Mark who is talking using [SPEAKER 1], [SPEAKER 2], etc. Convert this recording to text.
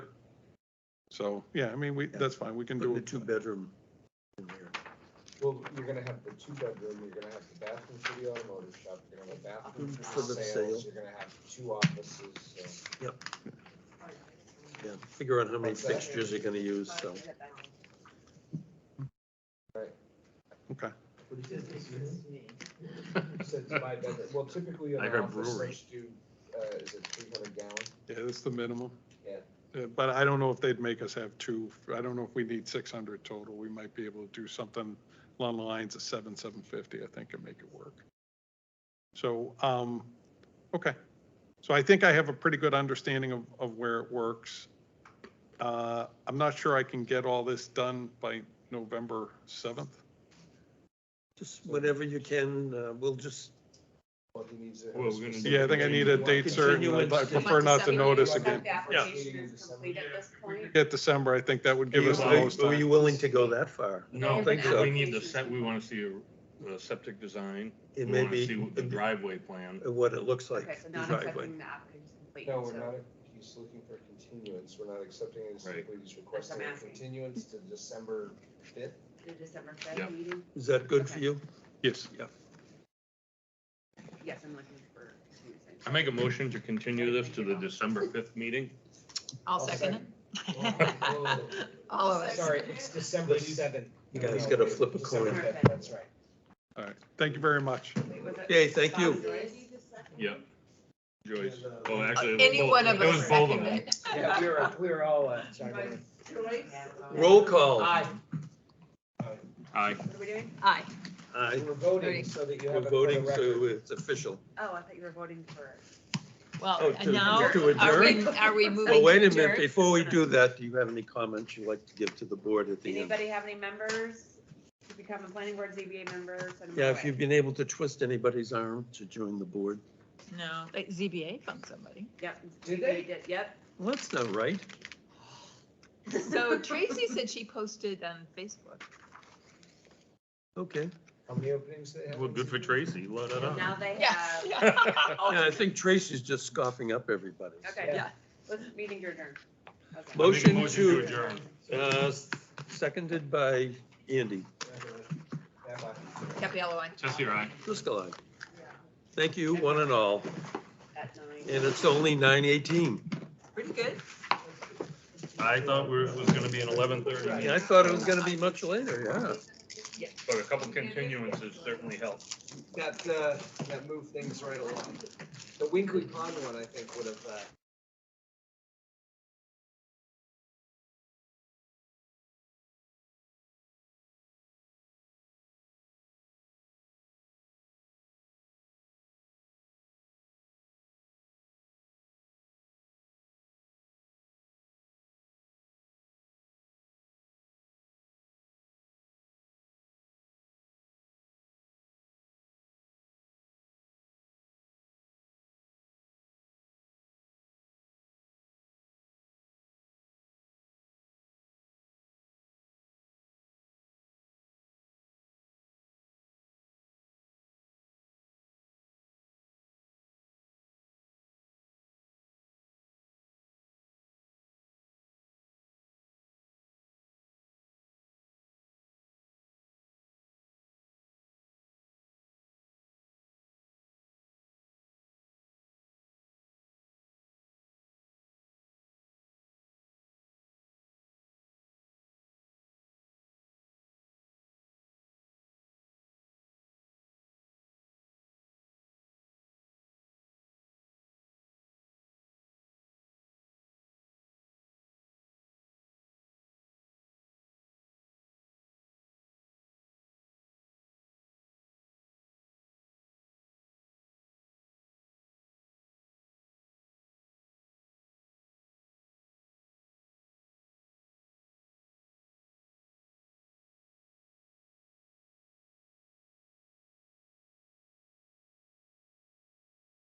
[SPEAKER 1] So, yeah, I mean, we, that's fine, we can
[SPEAKER 2] Putting
[SPEAKER 1] do
[SPEAKER 2] the
[SPEAKER 1] it.
[SPEAKER 2] two-bedroom in there.
[SPEAKER 3] Well, you're gonna have the two-bedroom, you're gonna have the bathroom for the automotive shop, you're gonna have a bathroom for
[SPEAKER 2] For
[SPEAKER 3] the
[SPEAKER 2] the
[SPEAKER 3] sales,
[SPEAKER 2] sale.
[SPEAKER 3] you're gonna have two offices, so.
[SPEAKER 2] Yeah, figure out how many
[SPEAKER 3] What's that?
[SPEAKER 2] fixtures you're gonna use, so.
[SPEAKER 1] Okay,
[SPEAKER 3] So it's my bedroom, well, typically
[SPEAKER 2] I
[SPEAKER 3] an
[SPEAKER 2] heard
[SPEAKER 3] office,
[SPEAKER 2] brewery.
[SPEAKER 3] they do, uh, is it three hundred gallon?
[SPEAKER 1] yeah, that's the minimum.
[SPEAKER 3] Yeah.
[SPEAKER 1] Yeah, Uh, But I don't know if they'd make us have two, I don't know if we need six hundred total, we might be able to do something along the lines of seven, seven fifty, I think, and make it work. So, um, okay, so I think I have a pretty good understanding of, of where it works. Uh, I'm not sure I can get all this done by November seventh.
[SPEAKER 2] Just whatever you can, uh, we'll just,
[SPEAKER 3] Well, he needs a.
[SPEAKER 4] Well, we're gonna
[SPEAKER 1] Yeah, I think I need a date certain, I'd- I
[SPEAKER 2] Continuance.
[SPEAKER 1] prefer not to notice
[SPEAKER 3] Like the
[SPEAKER 1] again.
[SPEAKER 3] seven
[SPEAKER 5] The application is complete at this point.
[SPEAKER 1] Get December, I think that would give
[SPEAKER 4] Are you
[SPEAKER 1] us the
[SPEAKER 4] willing-
[SPEAKER 1] most
[SPEAKER 2] were you
[SPEAKER 1] time.
[SPEAKER 2] willing to go that far?
[SPEAKER 4] No,
[SPEAKER 5] Yeah, but
[SPEAKER 2] the
[SPEAKER 4] we need the
[SPEAKER 5] application's-
[SPEAKER 4] set, we wanna see a, a septic design.
[SPEAKER 2] It
[SPEAKER 4] We
[SPEAKER 2] may
[SPEAKER 4] wanna see
[SPEAKER 2] be
[SPEAKER 4] what the driveway plan.
[SPEAKER 2] what it looks like.
[SPEAKER 5] Okay,
[SPEAKER 2] the
[SPEAKER 5] so not
[SPEAKER 2] driveway.
[SPEAKER 5] accepting the application's complete.
[SPEAKER 3] No, we're
[SPEAKER 5] so-
[SPEAKER 3] not, he's looking for continuance, we're not accepting it, simply he's requesting a
[SPEAKER 5] asking.
[SPEAKER 3] continuance to December fifth.
[SPEAKER 5] The December
[SPEAKER 4] Yeah.
[SPEAKER 5] fifth meeting?
[SPEAKER 2] Is that good for
[SPEAKER 5] Okay.
[SPEAKER 2] you?
[SPEAKER 1] Yes,
[SPEAKER 5] Yes, I'm looking for.
[SPEAKER 4] I make a motion to continue this to the December fifth meeting.
[SPEAKER 6] I'll second it. All of it.
[SPEAKER 3] Oh, Sorry, it's December seventh.
[SPEAKER 2] You guys gotta flip a
[SPEAKER 3] December
[SPEAKER 5] coin.
[SPEAKER 3] fifth, That's right.
[SPEAKER 1] all right, thank you very much.
[SPEAKER 2] Okay, thank you.
[SPEAKER 4] Yep. Joyce.
[SPEAKER 3] And, uh,
[SPEAKER 4] Well, actually. it was
[SPEAKER 6] Any
[SPEAKER 4] both-
[SPEAKER 6] one of
[SPEAKER 4] It was
[SPEAKER 6] us
[SPEAKER 4] both of
[SPEAKER 6] second
[SPEAKER 4] them.
[SPEAKER 6] it.
[SPEAKER 3] Yeah, we were, we were all, uh, sorry. about that.
[SPEAKER 2] Roll call.
[SPEAKER 3] Aye.
[SPEAKER 4] Aye.
[SPEAKER 5] What are we doing?
[SPEAKER 6] Aye.
[SPEAKER 2] Aye.
[SPEAKER 3] We're voting so that you
[SPEAKER 2] We're
[SPEAKER 3] have it for the
[SPEAKER 2] voting,
[SPEAKER 3] record.
[SPEAKER 2] so it's official.
[SPEAKER 5] Oh, I thought you were voting for.
[SPEAKER 2] Oh,
[SPEAKER 6] Well,
[SPEAKER 2] to-
[SPEAKER 6] and now,
[SPEAKER 2] to
[SPEAKER 6] are we,
[SPEAKER 2] adjourn?
[SPEAKER 6] are we moving?
[SPEAKER 2] Well, wait
[SPEAKER 6] to
[SPEAKER 2] a minute,
[SPEAKER 6] adjourn?
[SPEAKER 2] before we do that, do you have any comments you'd like to give to the board at the end?
[SPEAKER 5] Anybody have any members to become a planning board ZBA member? Send them
[SPEAKER 2] Yeah,
[SPEAKER 5] our
[SPEAKER 2] if
[SPEAKER 5] way.
[SPEAKER 2] you've been able to twist anybody's arm to join the board.
[SPEAKER 6] No, like ZBA found somebody.
[SPEAKER 5] Yep.
[SPEAKER 3] Did
[SPEAKER 5] ZBA
[SPEAKER 3] they?
[SPEAKER 5] did, Yep.
[SPEAKER 2] Well, that's not right.
[SPEAKER 6] So Tracy said she posted on Facebook.
[SPEAKER 2] Okay.
[SPEAKER 3] How many openings they have?
[SPEAKER 4] Well, good for Tracy, let it
[SPEAKER 5] Now
[SPEAKER 4] out.
[SPEAKER 5] they
[SPEAKER 6] Uh,
[SPEAKER 5] have.
[SPEAKER 2] Yeah, I think Tracy's just scoffing up everybody.
[SPEAKER 5] Okay.
[SPEAKER 6] Yeah.
[SPEAKER 5] Let's meeting your adjourn. Okay.
[SPEAKER 2] Mo- Motion to-
[SPEAKER 4] adjourn.
[SPEAKER 2] Uh, Seconded by Andy.
[SPEAKER 3] That one.
[SPEAKER 6] Capiello on.
[SPEAKER 4] Jesse, aye.
[SPEAKER 2] Driscoll, aye. Thank you, one and all.
[SPEAKER 5] At nine.
[SPEAKER 2] And it's only nine eighteen.
[SPEAKER 6] Pretty good.
[SPEAKER 4] I thought we were- it was gonna be an eleven thirty.
[SPEAKER 2] I thought it was gonna be much later, yeah.
[SPEAKER 4] But a couple continuances certainly helped.
[SPEAKER 3] That, uh, that moved things right along. The Winkley Pond one, I think, would have, uh,